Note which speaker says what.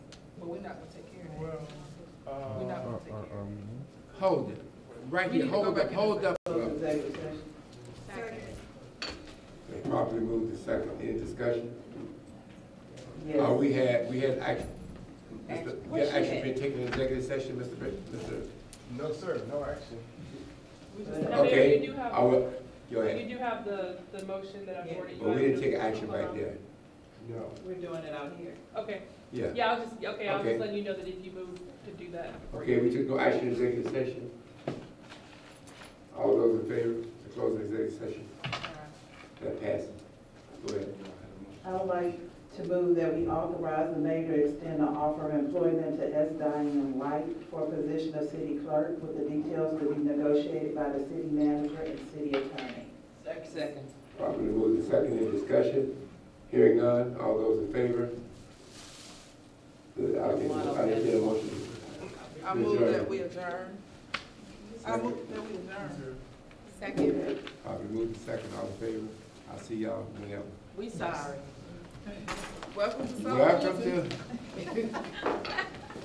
Speaker 1: we're not gonna take care of
Speaker 2: Well,
Speaker 1: that. We're
Speaker 2: uh,
Speaker 1: not gonna take care of that.
Speaker 3: Hold it, right
Speaker 1: We
Speaker 3: here,
Speaker 1: need to go
Speaker 3: hold
Speaker 1: back
Speaker 3: up,
Speaker 1: in
Speaker 3: hold
Speaker 1: the-
Speaker 3: up.
Speaker 4: Executive session.
Speaker 5: They properly moved to second, any discussion? Uh,
Speaker 4: Yes.
Speaker 5: we had, we had action, Mr.
Speaker 1: Action.
Speaker 5: yeah, action been taken in executive session, Mr. Bri- Mr.
Speaker 2: no, sir, no action.
Speaker 1: We just-
Speaker 4: Uh,
Speaker 6: Now, Mayor,
Speaker 5: Okay,
Speaker 6: you do have,
Speaker 5: I will, go
Speaker 6: you
Speaker 5: ahead,
Speaker 6: do have the, the motion that I've already.
Speaker 5: but we didn't take action back there. No.
Speaker 1: We're doing it out here.
Speaker 6: Okay,
Speaker 5: Yeah,
Speaker 6: yeah, I was just, okay, I was
Speaker 5: Okay.
Speaker 6: just letting you know that if you move to do that.
Speaker 5: okay, we took no action in executive session. All those in favor to close the executive session, that passes. Go ahead.
Speaker 4: I would like to move that we authorize the mayor to extend the offer of employment to S. Diane White for a position of city clerk with the details to be negotiated by the city manager and city attorney.
Speaker 1: Second.
Speaker 5: Properly moved to second, any discussion? Hearing none, all those in favor? I'll entertain- I'll entertain a motion.
Speaker 1: I move that we adjourn. I move that we adjourn. Second.
Speaker 5: Probably moved to second, all in favor? I'll see y'all whenever.
Speaker 1: We sorry. Welcome to Soul
Speaker 5: Welcome
Speaker 1: Food.
Speaker 5: to